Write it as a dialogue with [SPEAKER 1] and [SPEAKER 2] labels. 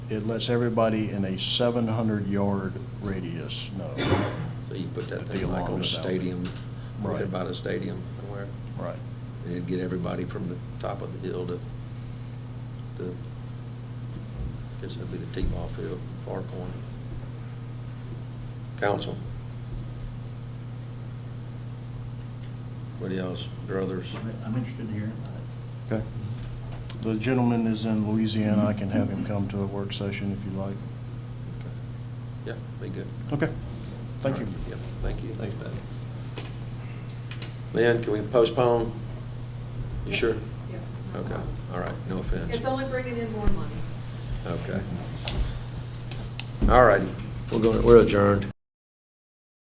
[SPEAKER 1] it lets everybody in a seven hundred yard radius know.
[SPEAKER 2] So you put that
[SPEAKER 1] That'd be
[SPEAKER 2] thing like
[SPEAKER 1] along
[SPEAKER 2] on a
[SPEAKER 1] the south.
[SPEAKER 2] stadium, right
[SPEAKER 1] Right.
[SPEAKER 2] about a stadium somewhere.
[SPEAKER 1] Right.
[SPEAKER 2] And It'd get everybody from the top of the hill to the, guess that'd be the T-ball field, far corner. Council. What else? Druthers.
[SPEAKER 3] I'm- I'm interested in hearing about it.
[SPEAKER 1] Okay. The gentleman is in Louisiana. I can have him come to a work session if you like.
[SPEAKER 2] Yeah, be good.
[SPEAKER 1] Okay. Thank you.
[SPEAKER 2] Yep, thank you. Thanks, Pat. Lynn, can we postpone? You sure?
[SPEAKER 4] Yeah.
[SPEAKER 2] Okay, all right, no offense.
[SPEAKER 4] It's only bringing in more money.
[SPEAKER 2] Okay. All righty, we're going, we're adjourned.